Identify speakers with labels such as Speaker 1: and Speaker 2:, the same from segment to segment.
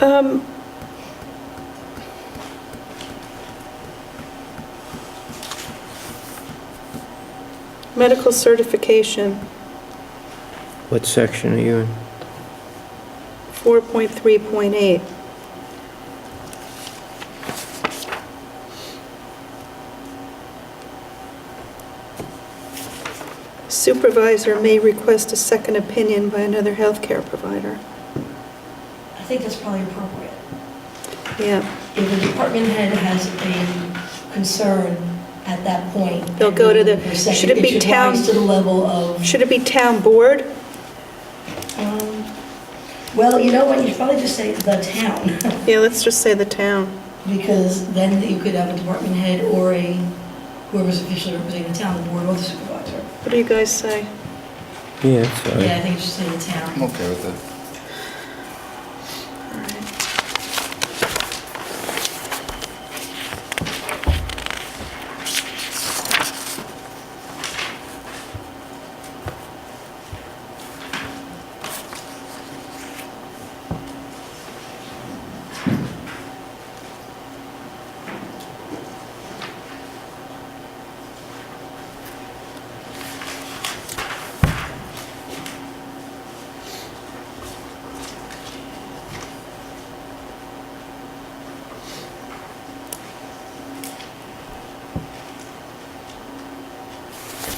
Speaker 1: Um, Medical certification,
Speaker 2: What section are you in?
Speaker 1: 4.3.8. Supervisor may request a second opinion by another healthcare provider.
Speaker 3: I think that's probably appropriate.
Speaker 1: Yeah,
Speaker 3: If the department head has a concern at that point.
Speaker 1: They'll go to the-
Speaker 3: or second,
Speaker 1: should it be town-
Speaker 3: It should rise to the level of,
Speaker 1: should it be town board?
Speaker 3: um, well, you know what, you should probably just say the town,
Speaker 1: Yeah, let's just say the town.
Speaker 3: because then you could have a department head or a, whoever's officially representing the town, the board or the supervisor.
Speaker 1: What do you guys say?
Speaker 2: Yeah, it's all
Speaker 3: Yeah, I
Speaker 2: right.
Speaker 3: think you should say the
Speaker 4: I'm
Speaker 3: town.
Speaker 4: okay with it.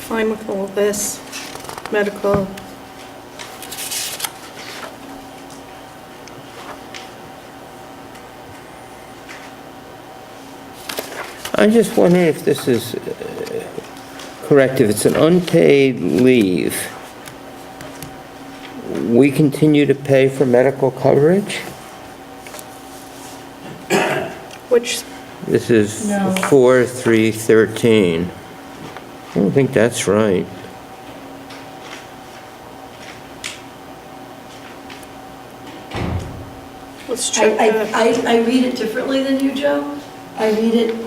Speaker 1: Fine with all this, medical.
Speaker 2: I'm just wondering if this is uh, correct, if it's an unpaid leave, we continue to pay for medical coverage?
Speaker 1: Which,
Speaker 2: This is
Speaker 3: No.
Speaker 2: 4313. I don't think that's right.
Speaker 1: let's check that.
Speaker 3: I, I, I I read it differently than you, Joe. I read it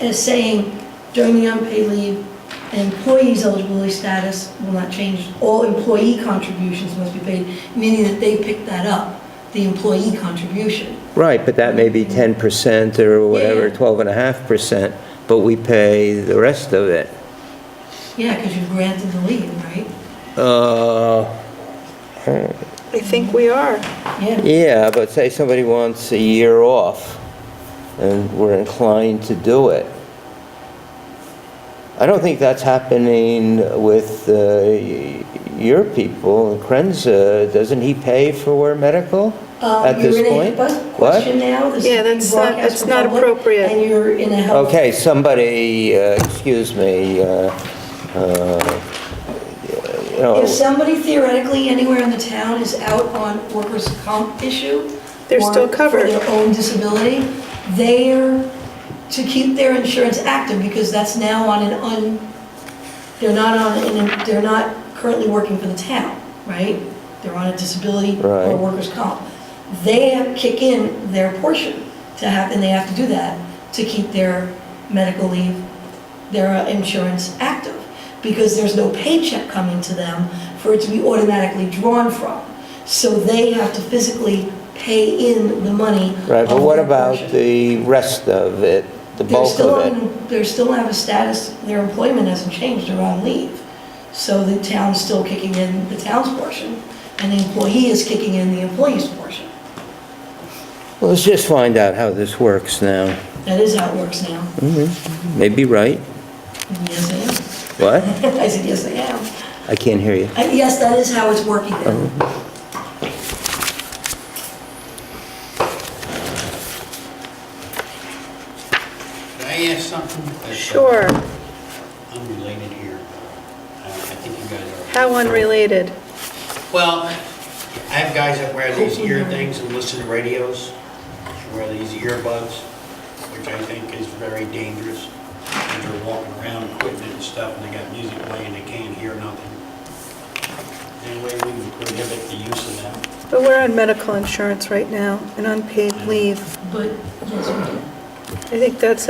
Speaker 3: as saying during the unpaid leave, the employee's eligibility status will not change. All employee contributions must be paid, meaning that they pick that up, the employee contribution.
Speaker 2: Right, but that may be 10% or whatever,
Speaker 3: yeah.
Speaker 2: 12.5%, but we pay the rest of it.
Speaker 3: Yeah, because you granted the leave, right?
Speaker 2: Uh,
Speaker 1: I think we are.
Speaker 3: Yeah.
Speaker 2: Yeah, but say somebody wants a year off, and we're inclined to do it. I don't think that's happening with uh, your people, Krenza, doesn't he pay for medical
Speaker 3: Um,
Speaker 2: at this point?
Speaker 3: You're in a HIPAA question
Speaker 2: What?
Speaker 3: now. This is
Speaker 1: Yeah,
Speaker 3: being
Speaker 1: that's not-
Speaker 3: broadcast
Speaker 1: it's
Speaker 3: for
Speaker 1: not
Speaker 3: public,
Speaker 1: appropriate.
Speaker 3: And you're in a health.
Speaker 2: Okay, somebody, uh, excuse me, uh, uh, oh, you know,
Speaker 3: If somebody theoretically anywhere in the town is out on workers' comp issue.
Speaker 1: They're
Speaker 3: or
Speaker 1: still covered.
Speaker 3: For their own disability, they're, to keep their insurance active because that's now on an un, they're not on, an- they're not currently working for the town, right? They're on a disability or
Speaker 2: Right.
Speaker 3: workers' comp. They have- kick in their portion to have, and they have to do that to keep their medical leave their uh, insurance active because there's no paycheck coming to them for it to be automatically drawn from. So they have to physically pay in the money.
Speaker 2: right, but
Speaker 3: of
Speaker 2: what
Speaker 3: their
Speaker 2: about
Speaker 3: portion.
Speaker 2: the rest of it, the
Speaker 3: Oh, They're
Speaker 2: bulk
Speaker 3: still
Speaker 2: of it?
Speaker 3: on, they're still have a status, their employment hasn't changed, they're on leave. So the town's still kicking in the town's portion and the employee is kicking in the employee's portion.
Speaker 2: Well, Let's just find out how this works now.
Speaker 3: That is how it works now.
Speaker 2: Maybe right.
Speaker 3: Yes, I
Speaker 2: What?
Speaker 3: am. I said, yes, I am.
Speaker 2: I can't hear you.
Speaker 3: Uh, Yes, that is how it's working now.
Speaker 2: Uh-huh.
Speaker 5: Can I ask something? that's, uh,
Speaker 1: Sure,
Speaker 5: Unrelated here. Uh, I think you guys are.
Speaker 1: how unrelated.
Speaker 5: Well, I have guys that wear these ear things and listen to radios, and wear these earbuds, which I think is very dangerous. And they're walking around equipment and stuff, and they got music playing, they can't hear nothing. Anyway, we would prohibit the use of them.
Speaker 1: But we're on medical insurance right now, and unpaid leave.
Speaker 3: But, yes, we do.
Speaker 1: I think that's a